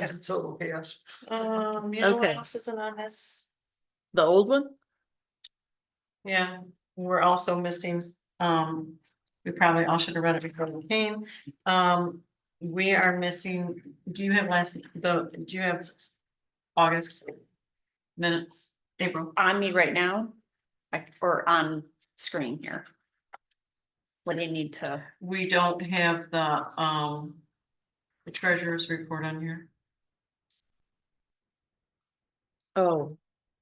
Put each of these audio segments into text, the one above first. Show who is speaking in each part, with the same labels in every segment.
Speaker 1: And total chaos.
Speaker 2: Um, you know what
Speaker 3: Okay.
Speaker 2: else isn't on this?
Speaker 3: The old one?
Speaker 2: Yeah, we're also missing, um, we probably all should have read it before we came. Um, we are missing, do you have last, the, do you have August minutes, April?
Speaker 4: on me right now, like, or on screen here. What do you need to,
Speaker 2: We don't have the, um, the treasurer's report on here.
Speaker 3: Oh,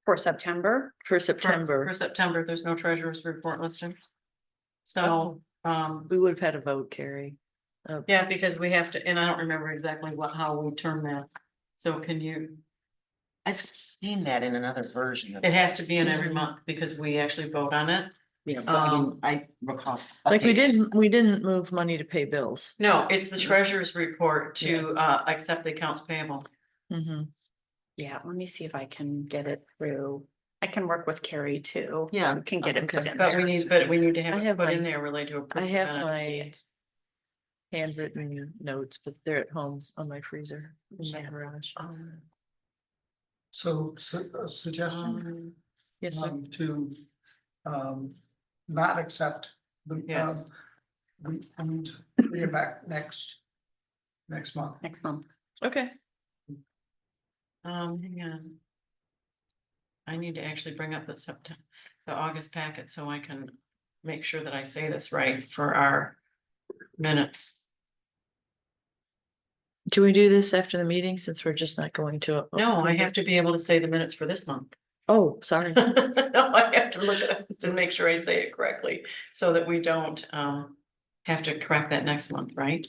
Speaker 4: for September,
Speaker 3: for
Speaker 2: For-
Speaker 3: September.
Speaker 2: For September, there's no treasurer's report listed. So,
Speaker 3: Oh.
Speaker 2: um,
Speaker 3: We would have had a vote, Carrie. Uh,
Speaker 2: yeah, because we have to, and I don't remember exactly what, how we term that. So can you,
Speaker 5: I've seen that in another version. of
Speaker 2: It has to be in every
Speaker 3: Mhm.
Speaker 2: month because we actually vote on it.
Speaker 5: Yeah, but I
Speaker 2: um,
Speaker 5: didn't- I recall.
Speaker 3: Like we
Speaker 5: Okay.
Speaker 3: didn't, we didn't move money to pay bills.
Speaker 2: No, it's the treasurer's report to uh accept the accounts payable.
Speaker 3: Mhm.
Speaker 4: yeah, let me see if I can get it through. I can work with Carrie too.
Speaker 2: Yeah.
Speaker 4: We Can get it put
Speaker 3: Okay.
Speaker 4: in
Speaker 2: But we
Speaker 4: there.
Speaker 2: need, but we need to have
Speaker 3: I
Speaker 2: it
Speaker 3: have
Speaker 2: put in
Speaker 3: my-
Speaker 2: there related to.
Speaker 3: I
Speaker 2: approved
Speaker 3: have my
Speaker 2: minutes.
Speaker 3: handwritten notes, but they're at home on my freezer in my garage.
Speaker 2: Um,
Speaker 1: So, su- a suggestion
Speaker 2: um,
Speaker 3: Yes, sir.
Speaker 1: um, to um, not accept the.
Speaker 2: Yes.
Speaker 1: um, We, I mean, bring it back next, next month.
Speaker 4: Next month.
Speaker 3: okay.
Speaker 2: Um, hang on. I need to actually bring up the September, the August packet so I can make sure that I say this right for our minutes.
Speaker 3: Can we do this after the meeting since we're just not going to? a-
Speaker 2: No, I have to be able to say the minutes for this month.
Speaker 3: Oh, sorry.
Speaker 2: No, I have to look at it to make sure I say it correctly, so that we don't um have to correct that next month, right?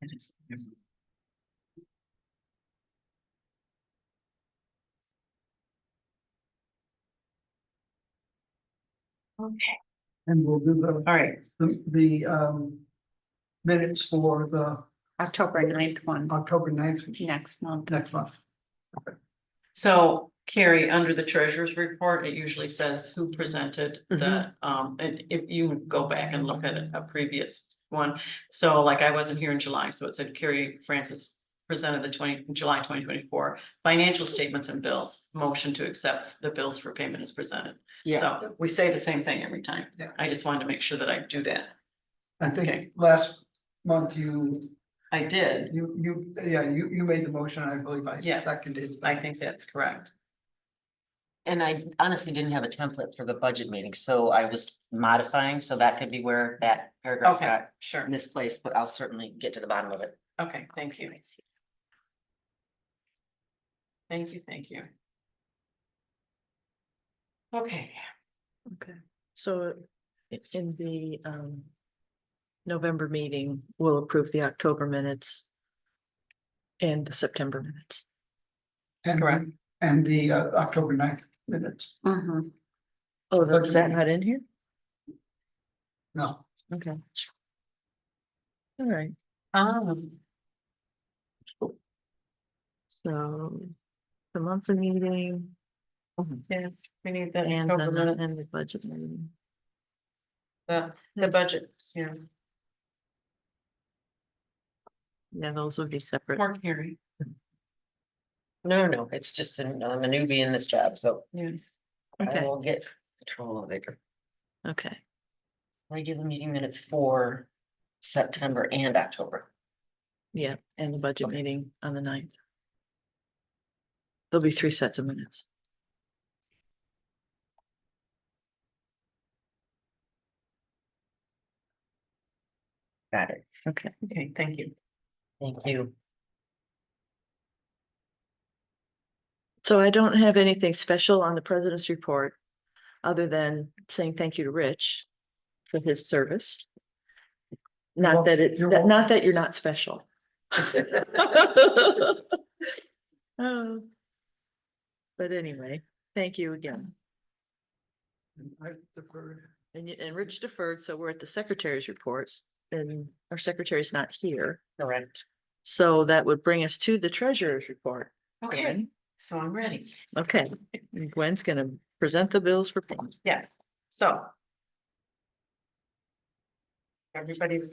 Speaker 2: It is-
Speaker 1: And we'll do the,
Speaker 2: All right,
Speaker 1: the, the um, minutes for the
Speaker 4: October 9th one,
Speaker 1: October 9th
Speaker 4: next month.
Speaker 1: next month.
Speaker 2: so Carrie, under the treasurer's report, it usually says who presented the um, and if you go back and look at a previous one. So like I wasn't here in July, so it said Carrie Francis presented the twenty, July twenty twenty-four financial statements and bills, motion to accept the bills for payment is presented.
Speaker 5: Yeah,
Speaker 2: So we say the same thing every time.
Speaker 1: Yeah.
Speaker 2: I just wanted to make sure that I do that.
Speaker 1: I think
Speaker 2: Okay.
Speaker 1: last month you,
Speaker 2: I did.
Speaker 1: you, you, yeah, you, you made the motion. I believe I
Speaker 2: Yes.
Speaker 1: seconded.
Speaker 2: I think that's correct.
Speaker 5: and I honestly didn't have a template for the budget meeting, so I was modifying, so that could be where that paragraph
Speaker 2: Okay,
Speaker 5: got
Speaker 2: sure.
Speaker 5: misplaced, but I'll certainly get to the bottom of it.
Speaker 2: Okay, thank you. Thank you, thank you. Okay,
Speaker 3: Okay, so i- in the um. November meeting, we'll approve the October minutes. And the September minutes.
Speaker 1: And-
Speaker 2: Correct.
Speaker 1: And the uh, October 9th minutes.
Speaker 4: Mhm.
Speaker 3: Oh,
Speaker 1: Budget
Speaker 3: is that
Speaker 1: meeting.
Speaker 3: not in here?
Speaker 1: No,
Speaker 3: Okay. All right,
Speaker 2: um,
Speaker 3: so the monthly meeting
Speaker 2: we need the
Speaker 3: and then
Speaker 2: October
Speaker 3: the- and
Speaker 2: minutes,
Speaker 3: the budget meeting.
Speaker 2: the, the budget, yeah,
Speaker 3: Yeah, those would be separate.
Speaker 2: more hearing,
Speaker 5: No, no, it's just, an- I'm a newbie in this job, so
Speaker 2: yes.
Speaker 5: I
Speaker 3: Okay,
Speaker 5: will get control of it.
Speaker 3: okay,
Speaker 5: Regular meeting minutes for September and October.
Speaker 3: yeah, and the budget
Speaker 5: Okay.
Speaker 3: meeting on the ninth. There'll be three sets of minutes.
Speaker 5: Got it.
Speaker 3: Okay,
Speaker 2: Okay, thank you.
Speaker 5: Thank you.
Speaker 3: so I don't have anything special on the president's report. Other than saying thank you to Rich for his service. Not
Speaker 1: wel-
Speaker 3: that it's,
Speaker 1: you're
Speaker 3: that-
Speaker 1: welcome.
Speaker 3: not that you're not special. Oh. But anyway, thank you again.
Speaker 1: I deferred.
Speaker 3: And, y- and Rich deferred, so we're at the secretary's report and our secretary's not here.
Speaker 5: Correct.
Speaker 3: So that would bring us to the treasurer's report.
Speaker 2: Okay,
Speaker 3: Gwen.
Speaker 2: so I'm ready.
Speaker 3: Okay, and Gwen's gonna present the bills for payment.
Speaker 2: Yes, so. Everybody's